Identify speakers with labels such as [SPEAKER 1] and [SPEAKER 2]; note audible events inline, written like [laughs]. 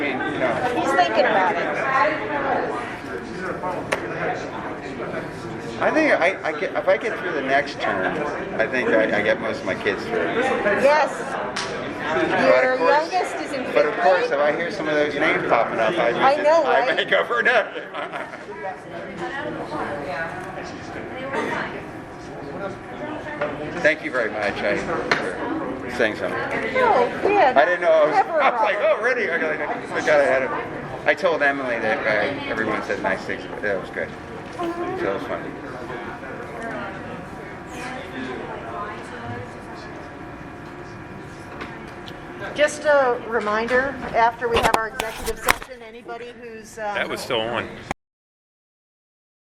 [SPEAKER 1] I think I, I get, if I get through the next term, I think I, I get most of my kids through.
[SPEAKER 2] Yes.
[SPEAKER 1] But
[SPEAKER 2] Your
[SPEAKER 1] of course-
[SPEAKER 2] youngest is in fifth
[SPEAKER 1] But of course, if
[SPEAKER 2] grade.
[SPEAKER 1] I hear some of those names popping up, I,
[SPEAKER 2] I know,
[SPEAKER 1] I
[SPEAKER 2] right?
[SPEAKER 1] may go for another. [laughs] Thank you very much. I for saying something.
[SPEAKER 2] Oh, yeah.
[SPEAKER 1] I didn't know. I was, [laughs]
[SPEAKER 2] Never
[SPEAKER 1] I was
[SPEAKER 2] wrong.
[SPEAKER 1] like, oh, really? I got, I got ahead of. I told Emily that uh, everyone said nice things. But that was good. So it was funny.
[SPEAKER 2] Just a reminder, after we have our executive session, anybody who's. um,
[SPEAKER 3] That was still on.